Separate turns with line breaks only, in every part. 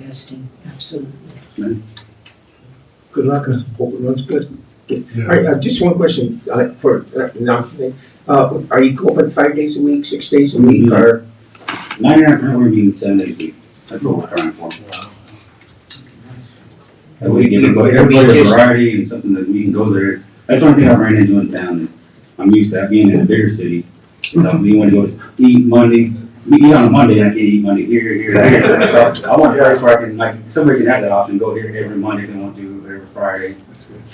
investing, absolutely.
Good luck and hope it runs good.
All right, uh, just one question, uh, for, uh, now, uh, are you open five days a week, six days
Mm-hmm.
a week, or?
Nine and a half hour meeting seven days a week. That's what we're trying for. And we can go, everybody a variety and something that we can go there. That's one thing I ran into in town. and I'm used to being in a bigger city. Is I you wanna go eat Monday, we eat on Monday, I can't eat Monday here, here, here. I want a place where I can, like, somebody can have that option, go here every Monday, if they want to, or every Friday.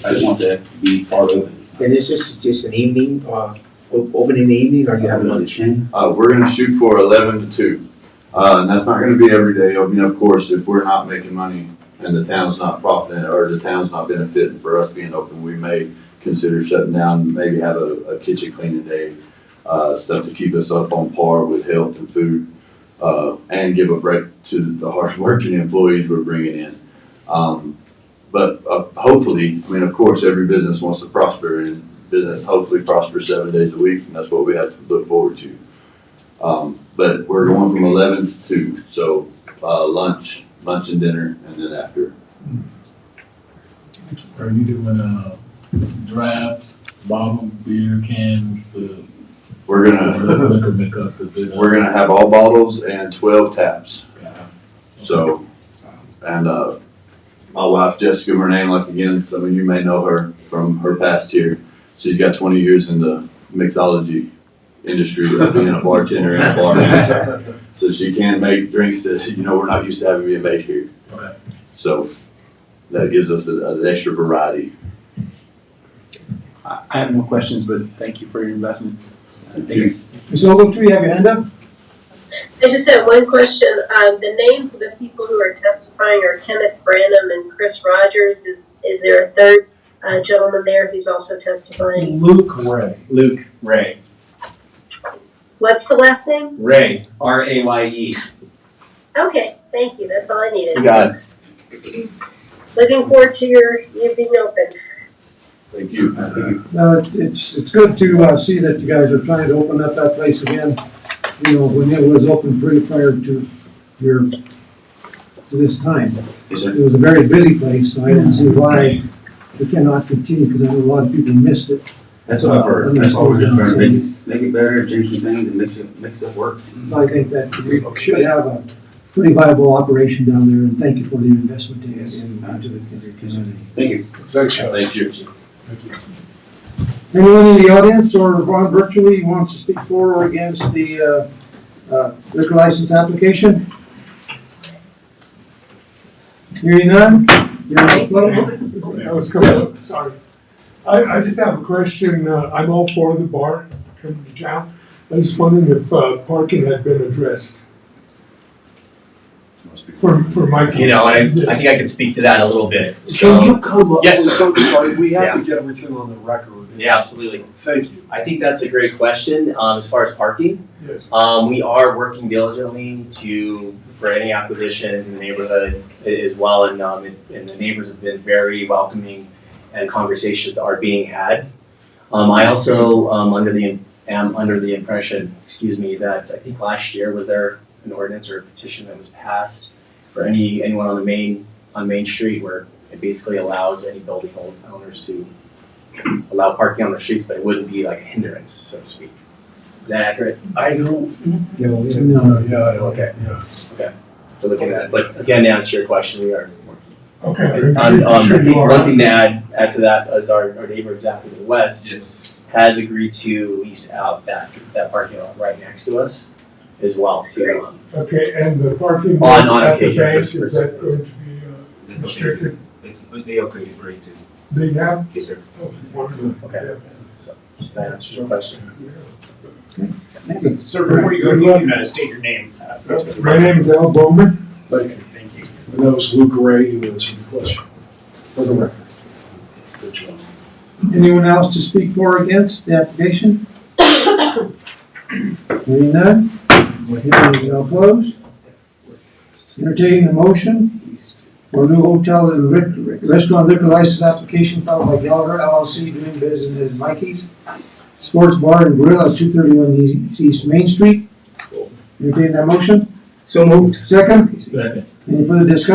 I just want that to be part of it.
And is this just an evening, uh, o- open in the evening, or you have lunch?
Uh, we're gonna shoot for eleven to two. Uh, and that's not gonna be every day. I mean, of course, if we're not making money and the town's not profiting or the town's not benefiting for us being open, we may consider shutting down, maybe have a, a kitchen cleaning day, uh, stuff to keep us up on par with health and food, uh, and give a break to the hardworking employees we're bringing in. Um, but, uh, hopefully, I mean, of course, every business wants to prosper and business hopefully prospers seven days a week, and that's what we have to look forward to. Um, but we're going from eleven to two, so, uh, lunch, lunch and dinner, and then after.
Are you doing a draft, bottle, beer cans, the?
We're gonna,
Liquor makeup, is it? uh,
we're gonna have all bottles and twelve taps,
uh,
so, and, uh, my wife Jessica Renee, like again, some of you may know her from her past here. She's got twenty years in the mixology industry, of being a bartender and a barman. So she can make drinks that, you know, we're not used to having being made here.
Okay.
So, that gives us an, an extra variety.
I I have no questions, but thank you for your investment.
Ms. Ogletree, you have your hand up?
I just had one question. Um, the names of the people who are testifying are Kenneth Branham and Chris Rogers. Is, is there a third uh, gentleman there who's also testifying?
Luke Ray.
Luke Ray.
What's the last name?
Ray. R A Y E.
Okay, thank you. That's all I needed.
You got
Thanks. Looking forward to your, you being open.
Thank you.
No, it's- it's, it's good to, uh, see that you guys are trying to open up that place again. You know, when it was open pretty prior to your, to this time.
Yes, sir.
It was a very busy place, so I didn't see why we cannot continue, because I know a lot of people missed it. Uh,
That's what I've heard. That's why we're just trying to make it, make it better, change some things, and mix it, mix it work.
So I think that we
Oh,
should have a pretty viable operation down there, and thank you for the investment in, into the community.
Thank you.
Thanks,
Thank you.
Anyone in the audience or on virtually who wants to speak for or against the uh, uh, liquor license application? Hearing none? Hearing none?
I was coming up, sorry. I, I just have a question, uh, I'm all for the bar coming to town. I was wondering if, uh, parking had been addressed for, for my.
You know, and I, I think I can speak to that a little bit.
Can
So,
you come up with
Yes, sir.
something, sorry, we have to get everything on the record.
yeah, absolutely.
Thank you.
I think that's a great question, um, as far as parking.
Yes.
Um, we are working diligently to, for any acquisitions in the neighborhood a- as well, and, um, and- and the neighbors have been very welcoming and conversations are being had. Um, I also, um, under the, am under the impression, excuse me, that I think last year was there an ordinance or a petition that was passed for any, anyone on the main, on Main Street where it basically allows any building owners to allow parking on the streets, but it wouldn't be like a hindrance, so to speak. Is that accurate?
I don't,
No.
uh, yeah, I don't,
Okay.
yeah.
We're looking at, but again, to answer your question, we are. working.
Okay.
And, um,
Sure you are.
one thing to add, add to that is our, our neighbor exactly to the west
Yes.
has agreed to lease out that, that parking lot right next to us as well to, um,
Okay, and the parking.
On- on
at the
occasion,
bank,
for-
Is that going to be uh, restricted?
It's, they okay for you too.
They have?
Yes, sir.
Okay, wonderful.
Okay. that answers your question.
Sir, before you go, you can uh, state your name. uh, for the-
My name is Al Bowman.
Thank you.
Thank you.
And that was Luke Ray who answered the question, for the record. Good job.
Anyone else to speak for or against the application? Hearing none? Hearing is now closed. Entertaining the motion for new hotel and re- restaurant liquor license application filed by Gallagher LLC doing business as Mikey's Sports Bar and Grill at two thirty-one East Main Street. Entertaining that motion?
So moved.
Second?
Second.
Any further discussion?